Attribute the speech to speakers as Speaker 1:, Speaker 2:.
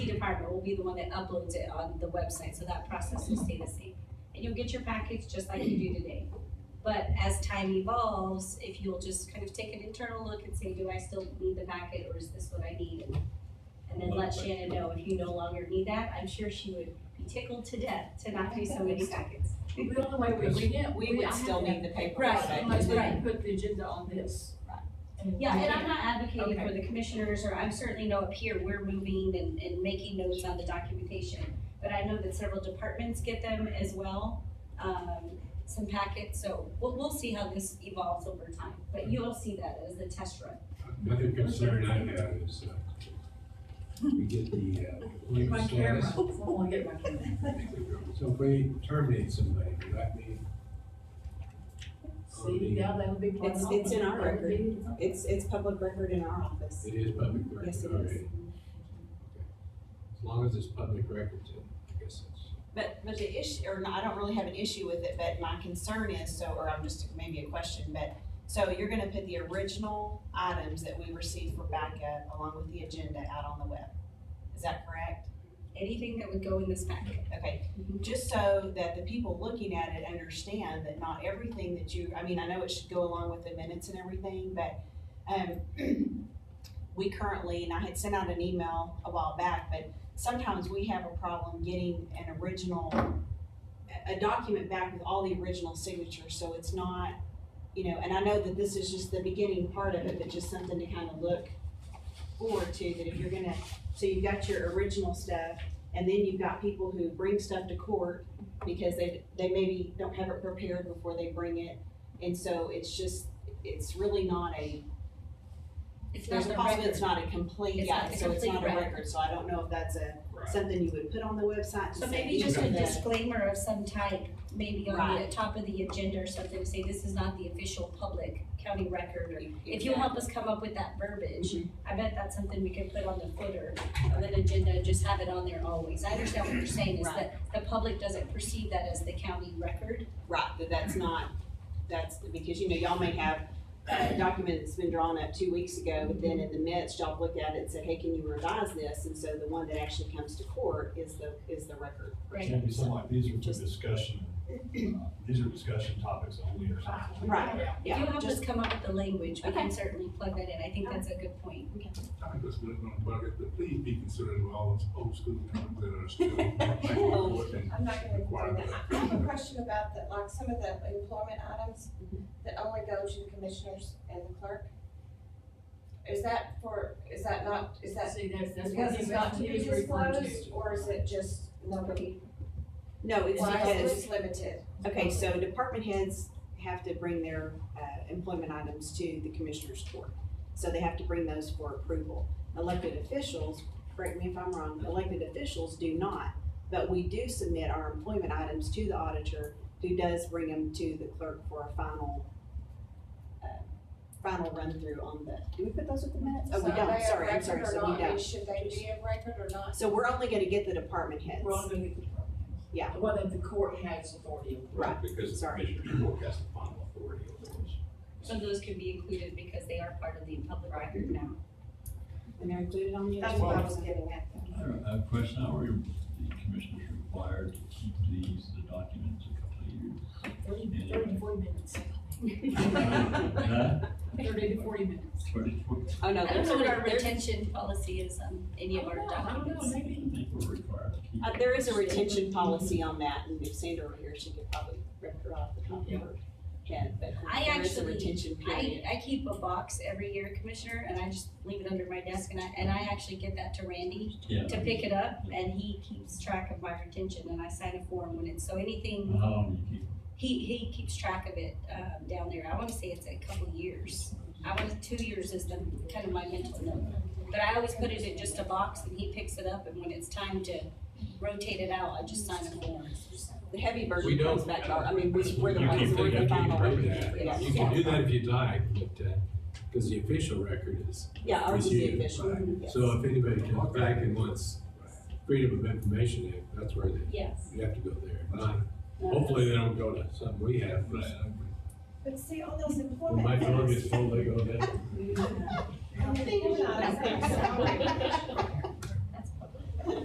Speaker 1: department will be the one that uploads it on the website, so that process will stay the same. And you'll get your package just like you do today. But as time evolves, if you'll just kind of take an internal look and say, do I still need the packet or is this what I need? And- And then let Shannon know if you no longer need that, I'm sure she would be tickled to death to not do so many packets.
Speaker 2: The only way we, we didn't, we
Speaker 3: We would
Speaker 2: I had
Speaker 3: still
Speaker 2: to-
Speaker 3: need the paper.
Speaker 2: Right, unless we
Speaker 1: Right.
Speaker 2: put the agenda on this.
Speaker 1: Yeah, and I'm not advocating for
Speaker 2: Okay.
Speaker 1: the commissioners, or I'm certainly no up here, we're moving and, and making notes on the documentation. But I know that several departments get them as well, um, some packets, so we'll, we'll see how this evolves over time. But you'll see that as a test run.
Speaker 4: Another concern I have is, uh, we get the, uh,
Speaker 2: Get
Speaker 4: leave
Speaker 2: my camera,
Speaker 4: status.
Speaker 2: I wanna get my camera.
Speaker 4: So if we terminate somebody, does that mean?
Speaker 2: See, now that would be. part
Speaker 5: It's-
Speaker 2: of
Speaker 5: it's in our
Speaker 2: it.
Speaker 5: record. It's, it's public record in our office.
Speaker 4: It is public record
Speaker 5: Yes, it is.
Speaker 4: already. Okay. As long as it's public record, then I guess it's,
Speaker 3: But, but the issue, or no, I don't really have an issue with it, but my concern is, so, or I'm just, maybe a question, but, so you're gonna put the original items that we received for backup along with the agenda out on the web? Is that correct?
Speaker 1: Anything that would go in this packet.
Speaker 3: Okay, just so that the people looking at it understand that not everything that you, I mean, I know it should go along with the minutes and everything, but, um, we currently, and I had sent out an email a while back, but sometimes we have a problem getting an original, a- a document back with all the original signatures, so it's not, you know, and I know that this is just the beginning part of it, but just something to kind of look forward to, that if you're gonna, so you've got your original stuff, and then you've got people who bring stuff to court because they, they maybe don't have it prepared before they bring it. And so it's just, it's really not a,
Speaker 1: It's not
Speaker 3: there's a
Speaker 1: the
Speaker 3: possibility
Speaker 1: record.
Speaker 3: it's not a complete,
Speaker 1: It's
Speaker 3: yeah,
Speaker 1: not a
Speaker 3: so it's not a
Speaker 1: complete
Speaker 3: record, so I don't know if that's a,
Speaker 4: right,
Speaker 3: something you would put on the website to
Speaker 1: So
Speaker 3: say
Speaker 1: maybe just a
Speaker 3: that-
Speaker 1: disclaimer of some type, maybe on the
Speaker 3: Right.
Speaker 1: top of the agenda or something, to say this is not the official public county record, or if you help us come up with that verbiage, I bet that's something we could put on the footer of an agenda, and just have it on there always. I understand what you're saying, is that the public doesn't perceive that as the county record.
Speaker 3: Right, that that's not, that's, because, you know, y'all may have a document that's been drawn up two weeks ago, but then in the midst, y'all looked at it and said, hey, can you revise this? And so the one that actually comes to court is the, is the record.
Speaker 6: Can be something like, these are for discussion, uh, these are discussion topics only or something.
Speaker 3: Right,
Speaker 1: If you
Speaker 3: yeah,
Speaker 1: help us
Speaker 3: just,
Speaker 1: come up with the language, we
Speaker 3: Okay.
Speaker 1: can certainly plug that in. I think that's a good point.
Speaker 7: I think that's really gonna plug it, but please be considerate of all those old school towns that are still.
Speaker 8: I'm not gonna
Speaker 7: Require
Speaker 8: do that. I have a question about that, like some of the employment items that only go to the commissioners and the clerk. Is that for, is that not, is that
Speaker 2: See, that's, that's
Speaker 8: because
Speaker 2: what
Speaker 8: it's
Speaker 2: he's
Speaker 8: not
Speaker 2: got
Speaker 8: to be
Speaker 2: referring to.
Speaker 8: disclosed, or is it just nobody,
Speaker 3: no, it's
Speaker 8: why is
Speaker 3: because,
Speaker 8: this limited?
Speaker 3: okay, so department heads have to bring their, uh, employment items to the commissioner's court. So they have to bring those for approval. Elected officials, correct me if I'm wrong, elected officials do not. But we do submit our employment items to the auditor, who does bring them to the clerk for a final, uh, final run-through on the, do we put those with the minutes? Oh, we
Speaker 8: So are they
Speaker 3: don't,
Speaker 8: of
Speaker 3: sorry, I'm
Speaker 8: record
Speaker 3: sorry,
Speaker 8: or
Speaker 3: so
Speaker 8: not?
Speaker 3: we
Speaker 8: I mean,
Speaker 3: don't.
Speaker 8: Should they be of record or not?
Speaker 3: So we're only gonna get the department heads.
Speaker 2: We're all gonna get the department heads.
Speaker 3: Yeah.
Speaker 2: The one that the court has authority over.
Speaker 3: Right,
Speaker 9: Because the
Speaker 3: sorry.
Speaker 9: commissioner's court has the final authority over this.
Speaker 1: Some of those can be included because they are part of the public record now.
Speaker 3: And they're included on the.
Speaker 8: That's what I was getting at.
Speaker 10: I have a Uh, question, how are you- the commissioners required to keep these, the documents a
Speaker 2: Thirty, thirty, forty minutes,
Speaker 10: couple of years? Huh?
Speaker 2: thirty to forty minutes.
Speaker 10: Pretty quick.
Speaker 3: Oh, no,
Speaker 1: I don't
Speaker 3: there's,
Speaker 1: know what our
Speaker 3: there's,
Speaker 1: retention policy is on any of our
Speaker 2: I don't know, I
Speaker 1: documents.
Speaker 2: don't know,
Speaker 10: I
Speaker 2: maybe.
Speaker 10: think we're required to keep.
Speaker 3: uh, there is a retention policy on that, and if Sandra were here, she could probably rip her off the top of her head, but
Speaker 1: I
Speaker 3: there is a
Speaker 1: actually-
Speaker 3: retention
Speaker 1: I,
Speaker 3: period.
Speaker 1: I keep a box every year, Commissioner, and I just leave it under my desk, and I, and I actually get that to Randy
Speaker 10: Yeah.
Speaker 1: to pick it up, and he keeps track of my retention, and I sign a form when it's, so anything,
Speaker 10: How long do you keep?
Speaker 1: he, he keeps track of it, um, down there, I wanna say it's a couple years. I wanna, two years is the, kind of my mental note, but I always put it in just a box, and he picks it up, and when it's time to rotate it out, I just sign a form.
Speaker 3: The heavy burden
Speaker 4: We don't-
Speaker 3: comes back to our, I mean, we, we're the
Speaker 4: You
Speaker 3: ones,
Speaker 4: can
Speaker 3: we're
Speaker 4: do
Speaker 3: the
Speaker 4: that, you can
Speaker 3: final.
Speaker 4: do
Speaker 3: representative.
Speaker 4: that.
Speaker 3: Yeah.
Speaker 4: You can do that if you'd like, but, uh, cause the official record is
Speaker 3: Yeah, ours is the
Speaker 4: reviewed.
Speaker 3: official, yes.
Speaker 4: So if anybody comes back and wants Freedom of Information Act, that's where they,
Speaker 1: Yes.
Speaker 4: you have to go there. Not- Hopefully they don't go to something we have, but uh,
Speaker 8: But see, all those
Speaker 4: when my
Speaker 8: employment.
Speaker 4: dog is full, they go there.
Speaker 8: I don't think it's not.